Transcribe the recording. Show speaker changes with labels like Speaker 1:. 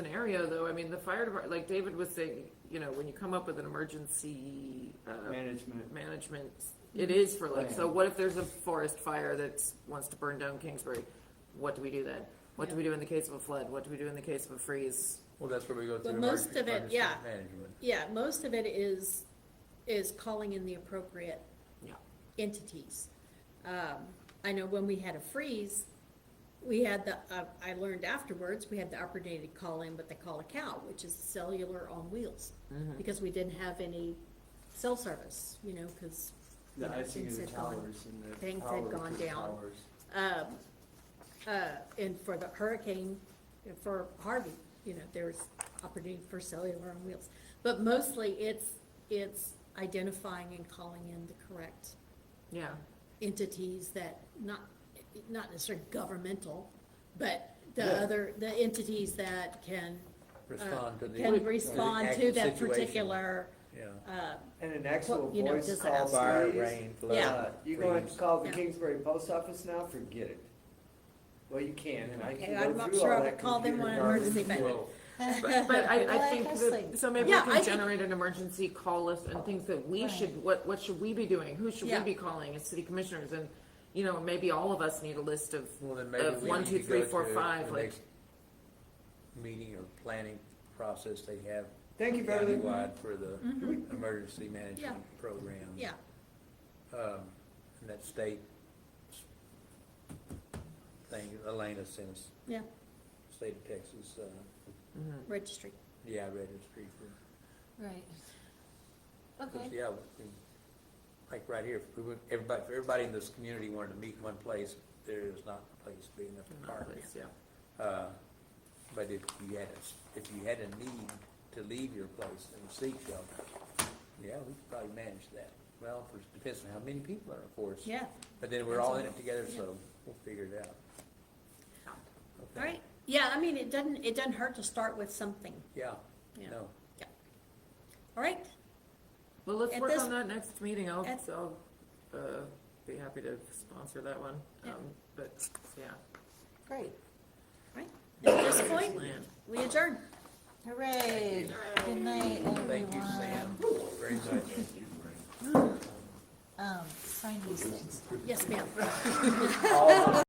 Speaker 1: scenario, though, I mean, the fire department, like David was saying, you know, when you come up with an emergency,
Speaker 2: Oh.
Speaker 1: uh,
Speaker 3: management.
Speaker 1: management, it is for like, so what if there's a forest fire that wants to burn down Kingsbury? What do we do then? What do we do in the case of a flood? What do we do in the case of a freeze?
Speaker 4: Well, that's where we go through.
Speaker 2: But most
Speaker 4: emergency
Speaker 2: of it,
Speaker 4: management.
Speaker 2: yeah.
Speaker 4: Management.
Speaker 2: Yeah, most of it is, is calling in the appropriate
Speaker 1: Yeah.
Speaker 2: entities. Um, I know when we had a freeze, we had the, uh, I learned afterwards, we had the upper day to call in what they call a cow, which is cellular on wheels.
Speaker 4: Mm-hmm.
Speaker 2: Because we didn't have any cell service, you know, cause, you
Speaker 3: The
Speaker 2: know,
Speaker 3: icing of
Speaker 2: things
Speaker 3: the
Speaker 2: had gone.
Speaker 3: towers and the.
Speaker 2: things had
Speaker 3: power
Speaker 2: gone
Speaker 3: to the
Speaker 2: down.
Speaker 3: towers.
Speaker 2: Um, uh, and for the hurricane, for Harvey, you know, there's opportunity for cellular on wheels. But mostly it's, it's identifying and calling in the correct
Speaker 1: Yeah,
Speaker 2: entities that, not, not necessarily governmental, but the
Speaker 3: Yeah.
Speaker 2: other, the entities that can,
Speaker 4: Respond to the.
Speaker 2: can respond
Speaker 4: actual
Speaker 2: to that
Speaker 4: situation.
Speaker 2: particular,
Speaker 4: Yeah.
Speaker 2: uh,
Speaker 3: And an actual
Speaker 2: Well, you know,
Speaker 3: voice call
Speaker 2: disaster.
Speaker 4: Fire,
Speaker 3: by,
Speaker 4: rain,
Speaker 2: Yeah.
Speaker 4: flood.
Speaker 3: you're going to
Speaker 4: freeze.
Speaker 3: call the
Speaker 2: Yeah.
Speaker 3: Kingsbury post office now, forget it. Well, you can, and I
Speaker 2: Okay,
Speaker 3: can
Speaker 2: I'm
Speaker 3: go
Speaker 2: not
Speaker 3: through
Speaker 2: sure I
Speaker 3: all
Speaker 2: would
Speaker 3: that
Speaker 2: call them
Speaker 3: computer
Speaker 2: one
Speaker 3: garbage.
Speaker 2: emergency man-
Speaker 4: Well,
Speaker 1: but but I, I
Speaker 5: Well,
Speaker 1: think
Speaker 5: that's
Speaker 1: that,
Speaker 5: like-
Speaker 1: so maybe we
Speaker 2: Yeah, I
Speaker 1: can
Speaker 2: think-
Speaker 1: generate an emergency call list and things that we
Speaker 5: Right.
Speaker 1: should, what, what should we be doing? Who should we
Speaker 2: Yeah.
Speaker 1: be calling as city commissioners? And, you know, maybe all of us need a list of,
Speaker 4: Well, then maybe
Speaker 1: of
Speaker 4: we
Speaker 1: one,
Speaker 4: need to
Speaker 1: two, three,
Speaker 4: go
Speaker 1: four,
Speaker 4: to
Speaker 1: five,
Speaker 4: the
Speaker 1: like,
Speaker 4: next Meeting or planning process they have
Speaker 3: Thank you, Beverly.
Speaker 4: countywide for the emergency management program.
Speaker 2: Mm-hmm. yeah,
Speaker 4: Um, and that state thing, Elena sent us,
Speaker 2: yeah,
Speaker 4: state of Texas, uh,
Speaker 2: registry.
Speaker 4: yeah, registry for
Speaker 5: Right.
Speaker 4: Because,
Speaker 5: Okay,
Speaker 4: yeah, we- we- like right here, if we would, everybody, if everybody in this community wanted to meet in one place, there is not a place big enough to park.
Speaker 1: yeah.
Speaker 4: Uh, But if you had, a s- if you had a need to leave your place and seek shelter, yeah, we could probably manage that. Well, for- depends on how many people are, of course.
Speaker 2: Yeah,
Speaker 4: But then we're all in it together, so we'll figure it out.
Speaker 2: all
Speaker 4: Okay.
Speaker 2: right. Yeah, I mean, it doesn't, it doesn't hurt to start with something,
Speaker 4: Yeah,
Speaker 2: Yeah.
Speaker 4: no,
Speaker 2: all right?
Speaker 1: Well, let's
Speaker 2: At
Speaker 1: work
Speaker 2: this-
Speaker 1: on that next meeting. I'll,
Speaker 2: at-
Speaker 1: I'll, uh, be happy to sponsor that one.
Speaker 2: Yeah.
Speaker 1: Um, but, yeah.
Speaker 5: great.
Speaker 2: Right, at this point,
Speaker 1: Plan.
Speaker 2: we adjourn.
Speaker 5: Hooray. Good night, everyone.
Speaker 4: thank you, Sam, very much.
Speaker 5: Um, sign these things.
Speaker 2: Yes, ma'am.